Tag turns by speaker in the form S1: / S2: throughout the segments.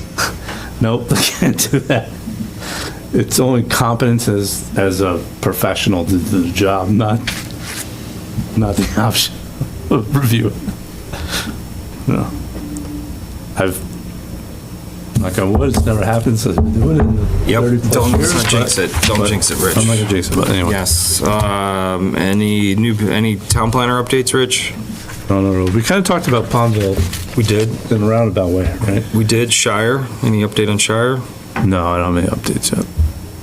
S1: Nope, I can't do that. It's only competence as, as a professional to do the job, not, not the option of review. No. I've, like I would, it's never happened, so I do it in the
S2: Yep,
S1: 30 plus
S2: don't
S1: years,
S2: let's not jinx
S1: but-
S2: it, don't jinx it,
S1: I'm not gonna
S2: Rich.
S1: jinx it, but anyway.
S2: Yes, um, any new, any town planner updates, Rich?
S1: No, no, no. We kind of talked about Palmville
S2: We did.
S1: in a roundabout way, right?
S2: We did, Shire, any update on Shire?
S1: No, I don't have any updates yet.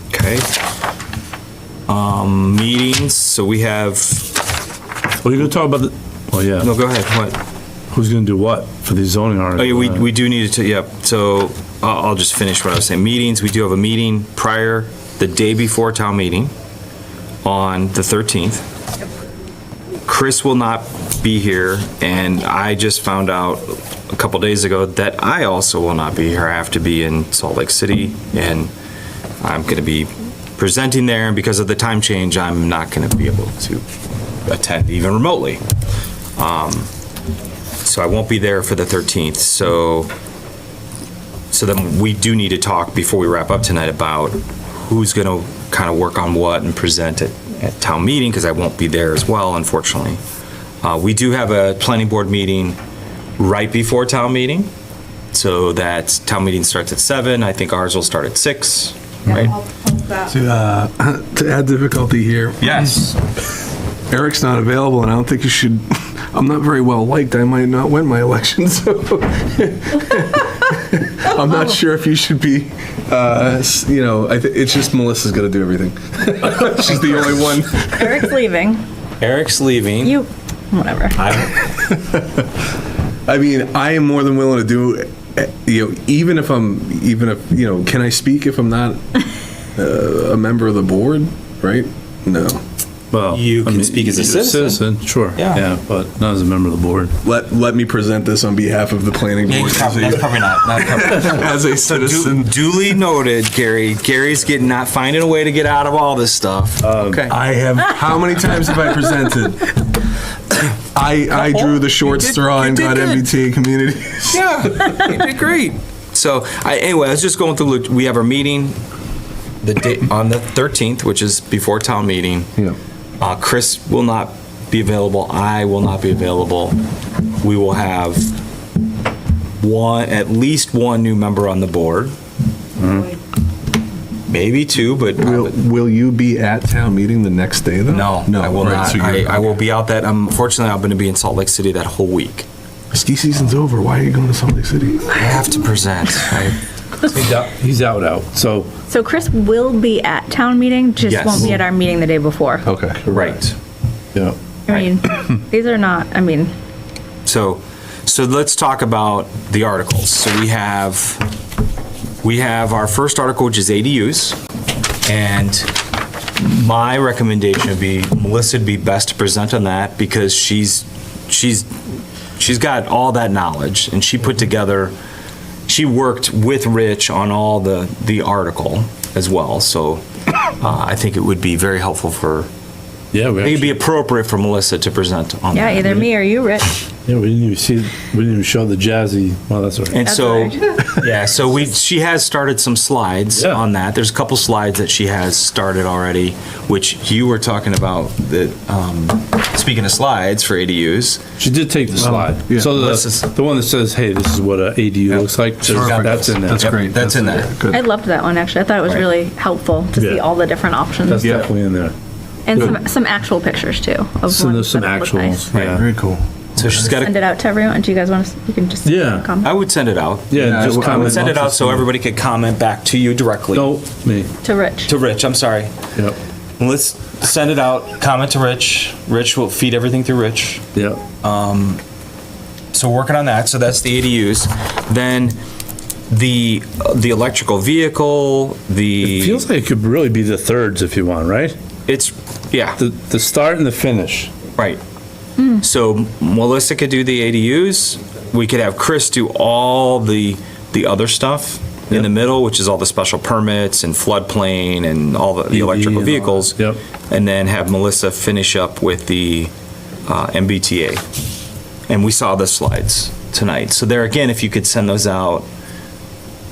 S2: Okay. Um, meetings, so we have,
S1: Well, you're gonna talk about the, well,
S2: no,
S1: yeah,
S2: go ahead, what?
S1: who's gonna do what for the zoning article? Uh,
S2: Oh, yeah, we,
S1: right?
S2: we do need to, yep, so I'll, I'll just finish what I was saying. Meetings, we do have a meeting prior, the day before town meeting on the 13th. Chris will not be here, and I just found out a couple days ago that I also will not be here. I have to be in Salt Lake City, and I'm gonna be presenting there, and because of the time change, I'm not gonna be able to attend even remotely. So I won't be there for the 13th, so, so then we do need to talk before we wrap up tonight about who's gonna kind of work on what and present it at town meeting, because I won't be there as well, unfortunately. Uh, we do have a planning board meeting right before town meeting, so that town meeting starts at seven, I think ours will start at six, right?
S3: Uh, To add difficulty here,
S2: Yes.
S3: Eric's not available, and I don't think you should, I'm not very well liked, I might not win my election, so. I'm not sure if you should be, uh, s- you know, I thi- it's just Melissa's gonna do everything. She's the only one.
S4: Eric's leaving.
S2: Eric's leaving.
S4: You, whatever.
S3: I mean, I am more than willing to do, eh, you know, even if I'm, even if, you know, can I speak if I'm not uh, a member of the board, right? No.
S1: Well,
S2: You can
S1: I mean,
S2: speak as a
S1: you're
S2: citizen.
S1: Sure.
S2: Yeah.
S1: but not as a member of the board.
S3: Let, let me present this on behalf of the planning
S2: Yeah,
S3: board.
S2: you probably- That's probably not, not
S3: as a
S2: Du-
S3: citizen.
S2: Duly noted, Gary. Gary's getting, not finding a way to get out of all this stuff.
S3: Okay. I have. How many times have I presented? I I drew the short
S2: You did-
S3: straw
S2: you
S3: and
S2: did
S3: got
S2: good.
S3: MBTA community.
S2: Yeah, you did great. So, I, anyway, I was just going through, we have our meeting the day, on the 13th, which is before town meeting.
S3: Yeah.
S2: Uh, Chris will not be available, I will not be available. We will have one, at least one new member on the board. Maybe two, but
S3: Will Will you be at town meeting the next day though?
S2: No,
S3: no,
S2: I will
S3: right,
S2: not.
S3: so
S2: I,
S3: you're-
S2: I will be out that. Unfortunately, I'm going to be in Salt Lake City that whole week.
S3: Ski season's over. Why are you going to Salt Lake City?
S2: I have to present. I,
S1: He's out, he's out, out. So,
S4: So Chris will be at town meeting, just
S2: Yes.
S4: won't be at our meeting the day before.
S3: Okay.
S2: right.
S1: yeah.
S4: I mean, these are not, I mean,
S2: So, so let's talk about the articles. So we have, we have our first article, which is ADUs. And my recommendation would be Melissa would be best to present on that because she's, she's, she's got all that knowledge and she put together, she worked with Rich on all the, the article as well. So uh, I think it would be very helpful for,
S1: Yeah, we
S2: I think it'd
S1: actually,
S2: be appropriate for Melissa to present on
S4: yeah,
S2: that.
S4: either me or you, Rich.
S1: yeah, we didn't even see, we didn't even show the jazzy, well, that's all right.
S2: And
S4: That's
S2: so,
S4: what
S2: yeah, so we, she has started some slides
S1: Yeah.
S2: on that. There's a couple slides that she has started already, which you were talking about, that, um, speaking of slides for ADUs.
S1: She did take the slide.
S3: yeah.
S1: So
S2: Let's just-
S1: the, the one that says, hey, this is what a ADU looks like,
S2: Perfect.
S1: that's in there.
S3: That's
S2: Yep,
S3: great.
S2: that's in there.
S3: Good.
S4: I loved that one, actually. I thought it was
S2: Right.
S4: really helpful to see
S1: Yeah.
S4: all the different
S1: That's
S4: options.
S2: Yeah.
S1: definitely in there.
S4: And some, some actual pictures too. of
S1: So there's
S4: ones
S1: some
S4: that look nice.
S1: actuals, yeah.
S3: Very cool.
S2: So she's got
S4: Send
S2: a,
S4: it out to everyone. Do you guys want to, you can just.
S1: Yeah.
S4: comment
S2: I would send it out.
S1: Yeah,
S3: I
S1: just
S3: would- I would
S1: comment.
S2: Send it out so everybody could comment back to you directly,
S1: No, me,
S4: To Rich.
S2: to Rich, I'm sorry.
S1: yep,
S2: Let's send it out, comment to Rich. Rich will feed everything through Rich.
S1: yep.
S2: so working on that, so that's the ADUs. Then the, the electrical vehicle, the.
S1: It feels like it could really be the thirds if you want, right?
S2: It's, yeah.
S1: The, the start and the finish.
S2: Right. So Melissa could do the ADUs. We could have Chris do all the, the other stuff in the middle, which is all the special permits and floodplain and all the- the
S1: EV E
S2: electrical
S1: and all
S2: vehicles.
S1: that. Yep.
S2: And then have Melissa finish up with the uh, MBTA. And we saw the slides tonight. So there again, if you could send those out